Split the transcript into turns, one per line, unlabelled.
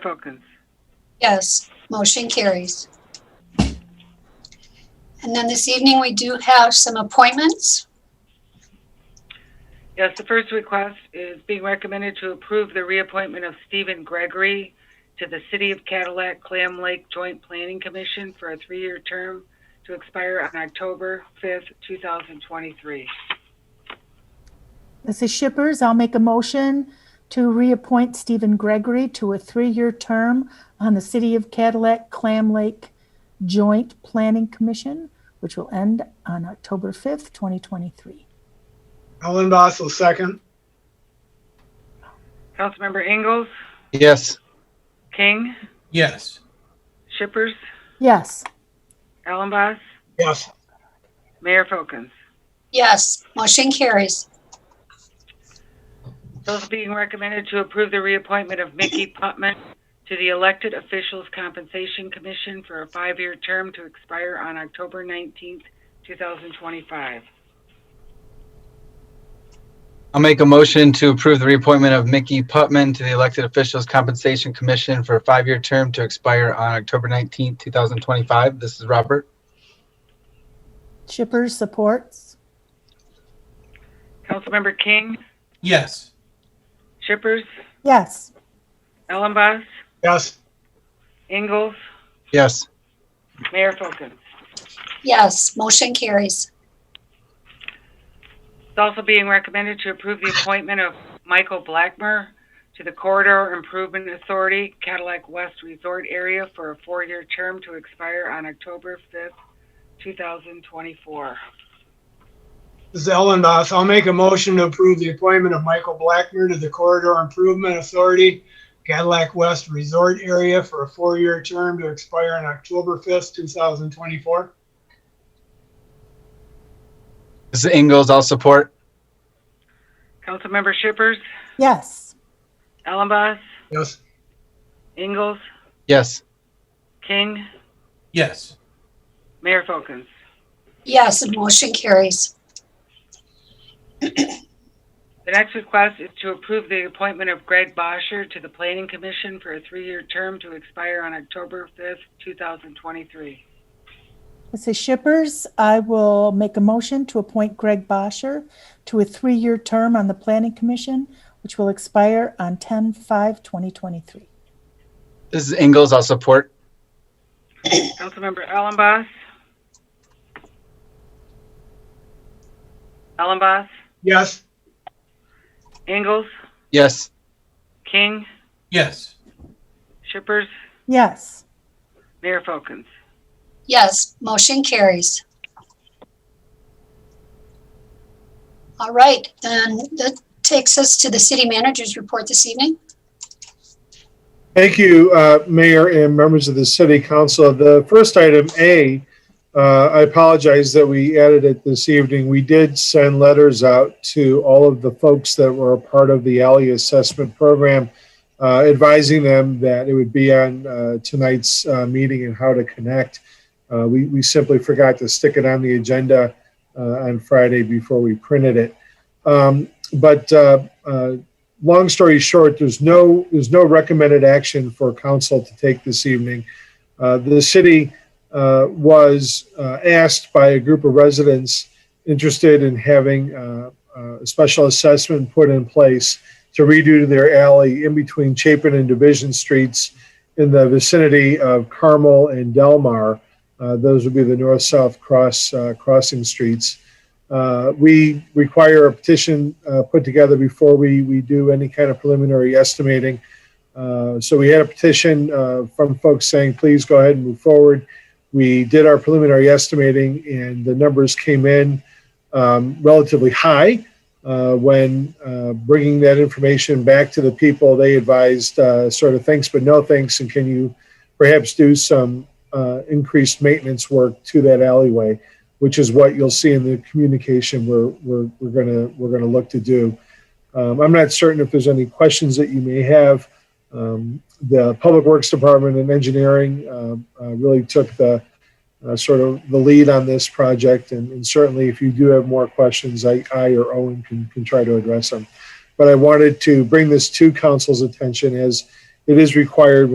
Perkins.
Yes, motion carries. And then this evening, we do have some appointments.
Yes, the first request is being recommended to approve the reappointment of Stephen Gregory to the City of Cadillac Clam Lake Joint Planning Commission for a three-year term to expire on October 5th, 2023.
This is Shippers. I'll make a motion to reappoint Stephen Gregory to a three-year term on the City of Cadillac Clam Lake Joint Planning Commission, which will end on October 5th, 2023.
Ellen Boss will second.
Councilmember Ingalls,
Yes.
King,
Yes.
Shippers,
Yes,
Allenboss,
Yes.
Mayor Folkins.
Yes, motion carries.
Those being recommended to approve the reappointment of Mickey Putman to the Elected Officials Compensation Commission for a five-year term to expire on October 19th, 2025.
I'll make a motion to approve the reappointment of Mickey Putman to the Elected Officials Compensation Commission for a five-year term to expire on October 19th, 2025. This is Robert.
Shippers supports.
Councilmember King,
Yes.
Shippers,
Yes,
Ellenboss,
Yes.
Ingalls,
Yes.
Mayor Folkins.
Yes, motion carries.
It's also being recommended to approve the appointment of Michael Blackmer to the Corridor Improvement Authority Cadillac West Resort Area for a four-year term to expire on October 5th, 2024.
This is Ellen Boss. I'll make a motion to approve the appointment of Michael Blackmer to the Corridor Improvement Authority, Cadillac West Resort Area for a four-year term to expire on October 5th, 2024.
This is Ingalls. I'll support.
Councilmember Shippers,
yes,
Ellenboss,
Yes.
Ingalls,
Yes.
King,
Yes.
Mayor Folkins.
Yes, motion carries.
The next request is to approve the appointment of Greg Bosher to the Planning Commission for a three-year term to expire on October 5th, 2023.
this is Shippers. I will make a motion to appoint Greg Bosher to a three-year term on the Planning Commission, which will expire on 10/5/2023.
This is Ingalls. I'll support.
Councilmember Allenboss? Allenboss?
Yes.
Ingalls?
Yes.
King?
Yes.
Shippers?
Yes,
Mayor Folkins.
Yes, motion carries. All right, then that takes us to the city manager's report this evening.
Thank you, uh, Mayor and members of the City Council. The first item, A, uh, I apologize that we added it this evening. We did send letters out to all of the folks that were a part of the Alley Assessment Program, uh, advising them that it would be on uh, tonight's uh, meeting and how to connect. Uh, We we simply forgot to stick it on the agenda uh, on Friday before we printed it. Um, But uh, uh, long story short, there's no, there's no recommended action for council to take this evening. Uh, the city uh, was uh, asked by a group of residents interested in having uh, uh, a special assessment put in place to redo their alley in between Chapin and Division Streets in the vicinity of Carmel and Delmar. Uh, those would be the north-south cross uh, crossing streets. Uh, we require a petition uh, put together before we, we do any kind of preliminary estimating. Uh, so we had a petition uh, from folks saying, please go ahead and move forward. We did our preliminary estimating and the numbers came in um, relatively high. Uh, when uh, bringing that information back to the people, they advised uh, sort of thanks but no thanks, and can you perhaps do some uh, increased maintenance work to that alleyway? which is what you'll see in the communication we're, we're, we're gonna, we're gonna look to do. Um, I'm not certain if there's any questions that you may have. Um, the Public Works Department and Engineering, uh, uh, really took the, uh, sort of the lead on this project. And, and certainly if you do have more questions, I, I or Owen can, can try to address them. But I wanted to bring this to council's attention as it is required